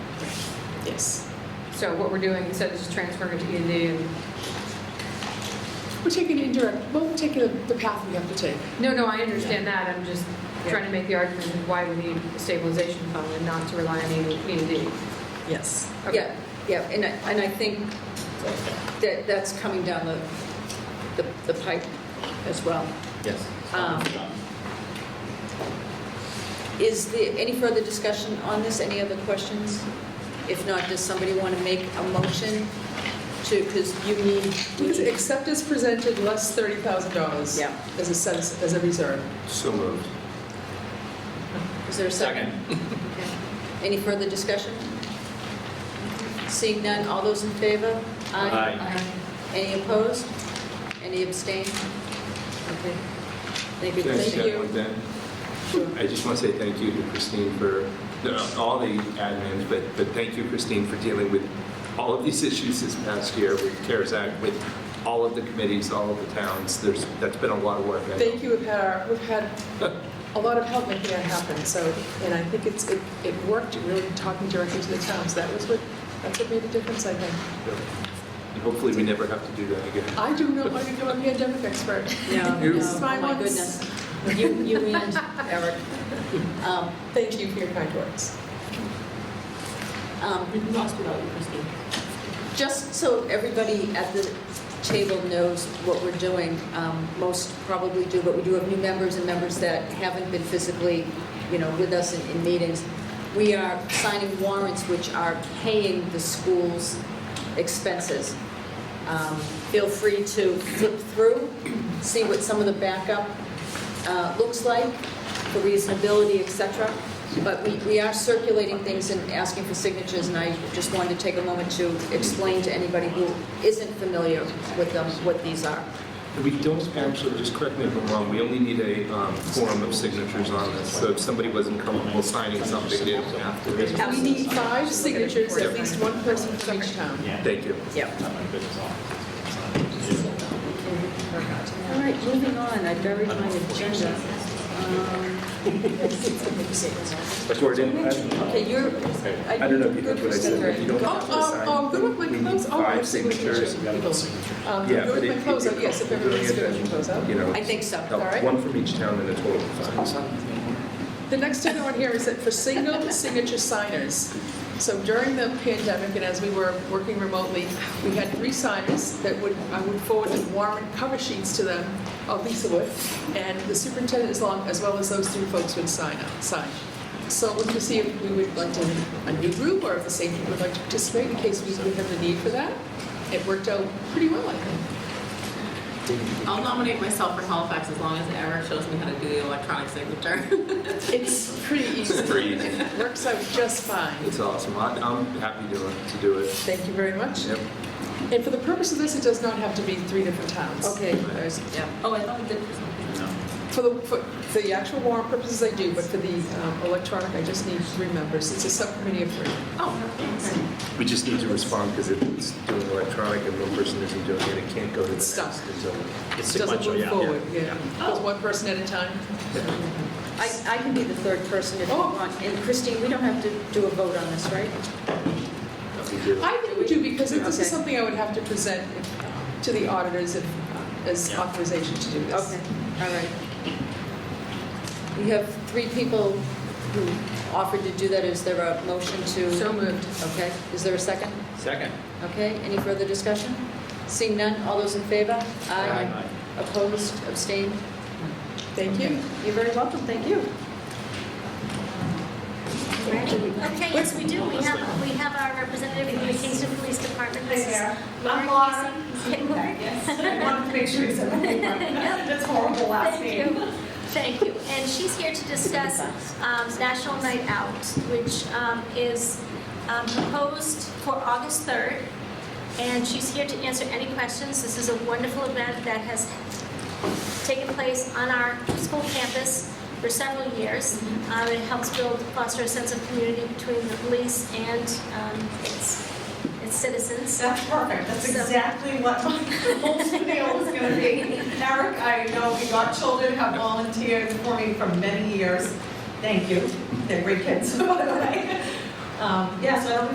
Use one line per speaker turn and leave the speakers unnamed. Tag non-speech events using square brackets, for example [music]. Yes.
So what we're doing, instead of just transferring it to E and D, and-
We're taking indirect, well, we're taking the path we have to take.
no, no, I understand that, I'm just trying to make the argument of why we need a stabilization fund and not to rely on E E and D.
Yes.
Okay.
Yeah, yeah, and I, and I think that that's coming down the, the the pipe as well.
Yes.
Um, Is there any further discussion on this? Any other questions? If not, does somebody want to make a motion to, because you need, you
Except as presented, less $30,000.
Yeah.
As a sense, as a reserve.
So moved.
is there a second? Okay. Any further discussion? Seeing none, all those in favor?
Aye.
Aye. Any opposed? Any abstain? Okay. Thank you.
Can I just add one thing? I just want to say thank you to Christine for, no, all the admins, but, but thank you, Christine, for dealing with all of these issues this past year with CARES Act, with all of the committees, all of the towns. There's, that's been a lot of work. I know.
Thank you, we've had, our- we've had
[laughs]
a lot of help making that happen, so, and I think it's, it it worked, really talking directly to the towns, that was what, that's what made a difference, I think.
And hopefully, we never have to do that again.
I do not want to become a pandemic expert.
No, no,
You-
This is my
oh my
ones.
goodness. You, you and Eric. Um,
Thank you for your kind words.
um, Just so everybody at the table knows what we're doing, um, most probably do, but we do have new members and members that haven't been physically, you know, with us in, in meetings. We are signing warrants which are paying the school's expenses. Um, Feel free to flip through, see what some of the backup uh, looks like, the reasonability, et cetera. But we, we are circulating things and asking for signatures, and I just wanted to take a moment to explain to anybody who isn't familiar with them what these are.
We don't actually, just correct me if I'm wrong, we only need a um, form of signatures on this. So if somebody wasn't comfortable signing something, they don't have to.
We need five signatures, at least one person from each town.
Thank you.
All right, moving on, I buried my agenda. Um,
But we're in.
Okay, you're.
I don't know if you heard what I said, but you don't
Oh,
have to
oh,
sign.
oh, good with my
We
clothes,
need
oh, I
five
see what you're
signatures.
Um, Good
Yeah, but
with
if-
my clothes
if
up,
you're
yes, if
comfortable doing
everybody's
it,
good with their clothes up.
You know,
I think so.
help.
All right.
one from each town and a total of five.
The next thing I want to hear is that for single signature signers, so during the pandemic and as we were working remotely, we had three signers that would, I would forward the warrant cover sheets to them, oh, Lisa would, and the superintendent as long, as well as those three folks would sign up, sign. So we're going to see if we would like to, a new group or if the same group would like to participate in case we would have the need for that. It worked out pretty well, I think.
I'll nominate myself for Halifax as long as Eric shows me how to do the electronic signature.
It's pretty easy.
[laughs]
It's pretty easy.
It Works out just fine.
It's awesome. I- I'm happy to to do it.
Thank you very much.
Yep.
And for the purpose of this, it does not have to be three different towns.
Okay, there's, yeah.
Oh, I thought we did for something.
For the, for for the actual warrant purposes, I do, but for the um, electronic, I just need three members. It's a subcommittee of three.
Oh,
We just need to respond because it's doing electronic and one person isn't doing it, it can't go to the
It's
next.
stuck.
so-
It doesn't move forward, yeah.
Oh.
Goes one person at a time.
I, I can be the third person if you
Oh.
want. And Christine, we don't have to do a vote on this, right?
we do.
I think we do, because if this
Okay.
is something I would have to present uh, to the auditors if, uh, as authorization to do this.
Okay, all right. We have three people who offered to do that. Is there a motion to?
So moved.
Okay, is there a second?
Second.
Okay, any further discussion? Seeing none, all those in favor?
Aye.
Opposed, abstained?
Thank you.
You're very welcome, thank you.
Okay, yes, we do. We have, we have our representative from the Kingston Police Department. This is Laura
I'm Laura.
Casey. [laughs] Hey, Laura.
[laughs] I wanted to make sure you said that.
[laughs]
That's horrible last
Thank
name.
you. Thank you. And she's here to discuss um, National Night Out, which um, is um, proposed for August 3rd. And she's here to answer any questions. This is a wonderful event that has taken place on our school campus for several years. Um, It helps build, foster a sense of community between the police and um, its its citizens.
That's perfect. That's
So-
exactly what my [laughs] whole spiel was going to be. Eric, I know we got children have volunteered for me for [laughs] many years. Thank you. They're great kids, by the way. Um, Yeah, so I don't